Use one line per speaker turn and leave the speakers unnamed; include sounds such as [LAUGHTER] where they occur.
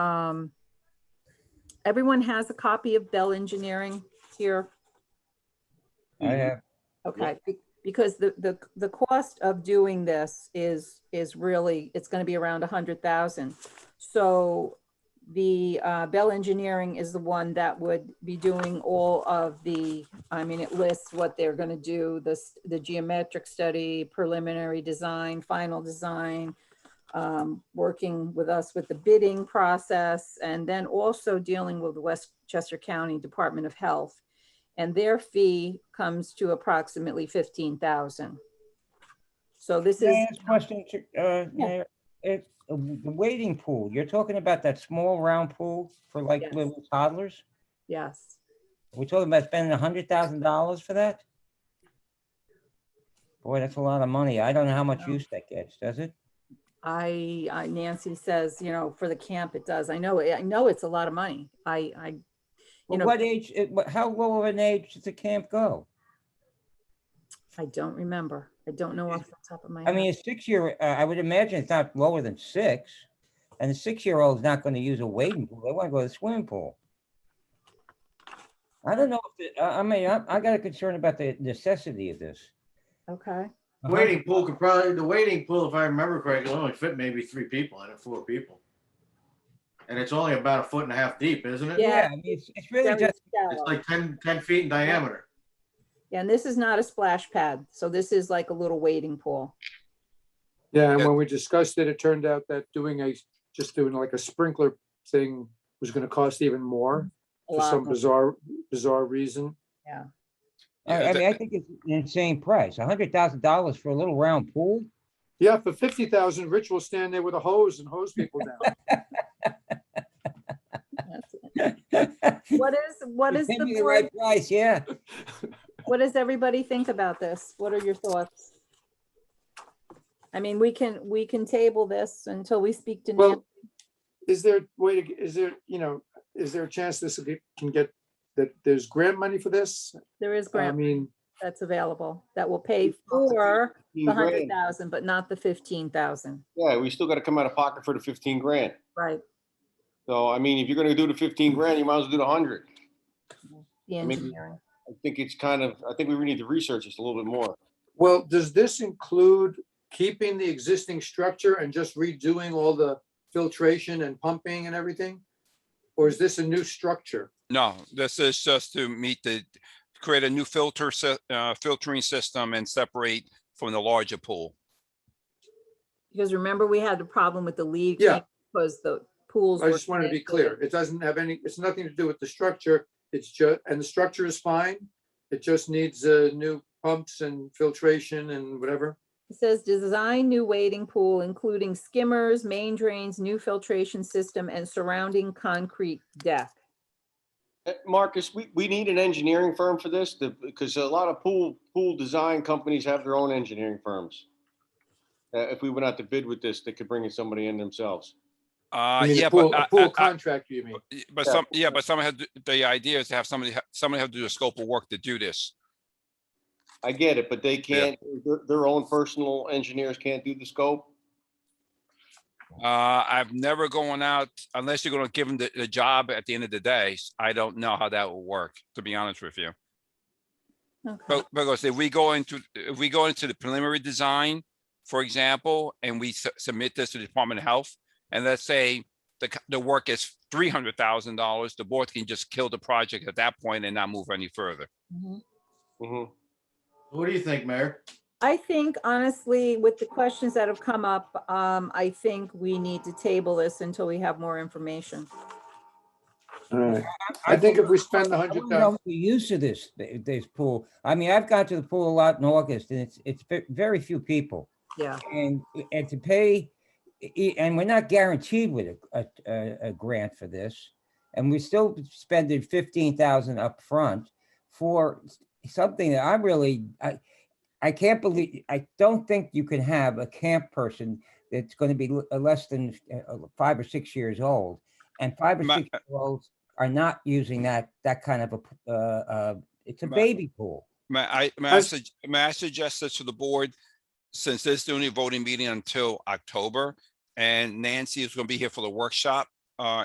um, everyone has a copy of Bell Engineering here?
I have,
Okay, be- because the, the, the cost of doing this is, is really, it's gonna be around a hundred thousand. So the uh, Bell Engineering is the one that would be doing all of the, I mean, it lists what they're gonna do, this, the geometric study, preliminary design, final design, um, working with us with the bidding process, and then also dealing with the Westchester County Department of Health and their fee comes to approximately fifteen thousand. So this
Can
is,
I ask a question, Ch- uh, Mayor? It's the waiting pool. You're talking about that small round pool for like
Yes.
little toddlers?
yes,
We're talking about spending a hundred thousand dollars for that? Boy, that's a lot of money. I don't know how much
No.
use that gets, does it?
I, I- Nancy says, you know, for the camp, it does. I know, eh, I know it's a lot of money. I, I, you
But
know,
what age, it- what- how low of an age does the camp go?
I don't remember. I don't know off the top of my
I
head.
mean, a six-year, uh, I would imagine it's not lower than six. And a six-year-old's not going to use a wading pool. They want to go to the swimming pool. I don't know if, the- I, I mean, I, I got a concern about the necessity of this.
Okay,
Uh-huh.
Waiting pool could probably, the waiting pool, if I remember correctly, only fit maybe three people in it, four people. And it's only about a foot and a half deep, isn't it?
Yeah.
Yeah, I mean, it's, it's really
Very
just,
It's
shallow.
like 10, 10 feet in diameter.
Yeah, and this is not a splash pad. So this is like a little wading pool.
Yeah, and
Yeah.
when we discussed it, it turned out that doing a, just doing like a sprinkler thing was gonna cost even more
Mm-hmm. A
for
lot
some
of-
bizarre, bizarre reason.
I, I mean, I think it's an insane price, a hundred thousand dollars for a little round pool.
Yeah, for fifty thousand, Rich will stand there with a hose and hose people
[LAUGHS]
down.
that's it.
[LAUGHS]
What is, what
You
is
pay
the
me
board,
right price, yeah.
what does everybody think about this? What are your thoughts? I mean, we can, we can table this until we speak to Nancy.
Well, is there a way to, is there, you know, is there a chance this will get- can get, that there's grant money for this?
There is
I
grant
mean,
that's available that will pay for the hundred
grand.
thousand, but not the fifteen thousand,
Yeah, we still gotta come out of pocket for the fifteen grand.
right?
So, I mean, if you're gonna do the fifteen grand, you might as well do the hundred.
The
I mean-
engineering.
I think it's kind of, I think we really need to research this a little bit more.
well, does this include keeping the existing structure and just redoing all the filtration and pumping and everything? Or is this a new structure?
No, this is just to meet the, create a new filter, se- uh, filtering system and separate from the larger pool.
Because remember, we had the problem with the league.
Yeah.
Because the pools.
I
were
just want to be
connected.
clear. It doesn't have any, it's nothing to do with the structure. It's just, and the structure is fine. It just needs uh, new pumps and filtration and whatever.
It says design new wading pool, including skimmers, main drains, new filtration system and surrounding concrete deck.
Uh, Marcus, we, we need an engineering firm for this, the- because a lot of pool, pool design companies have their own engineering firms. Uh, if we went out to bid with this, they could bring in somebody in themselves.
Uh,
You mean a
yeah,
pool-
but, uh,
a
I-
pool
I- I-
contractor, you mean?
y- but
yeah.
some, yeah, but someone had, to- the idea is to have somebody, ha- somebody have to do a scope of work to do this.
I get it, but they can't, their, their own personal engineers can't do the scope.
Uh, I've never gone out unless you're gonna give them the, the job at the end of the day. s- I don't know how that will work, to be honest with you.
Okay,
Oh.
But, because if we go into, if we go into the preliminary design, for example, and we su- submit this to the Department of Health, and let's say the, c- the work is three hundred thousand dollars, the board can just kill the project at that point and not move any further.
Mhm.
Mhm.
What do you think, Mayor?
I think honestly, with the questions that have come up, um, I think we need to table this until we have more information.
All right. I think if we spend the
I
hundred
don't know
thousand,
the use of this, th- this pool. I mean, I've gone to the pool a lot in August and it's, it's ve- very few people.
Yeah.
And, and to pay, i- i- and we're not guaranteed with a, a- a, a grant for this. And we still spending fifteen thousand upfront for s- something that I'm really, I, I can't believe, I don't think you can have a camp person that's gonna be l- uh, less than uh, uh, five or six years old. And five or
Ma-
six year olds are not using that, that kind of a, p- uh, uh, it's a
Ma-
baby pool.
May I, may I,
Has-
sug- may I suggest this to the board? Since this is the only voting meeting until October, and Nancy is gonna be here for the workshop, uh,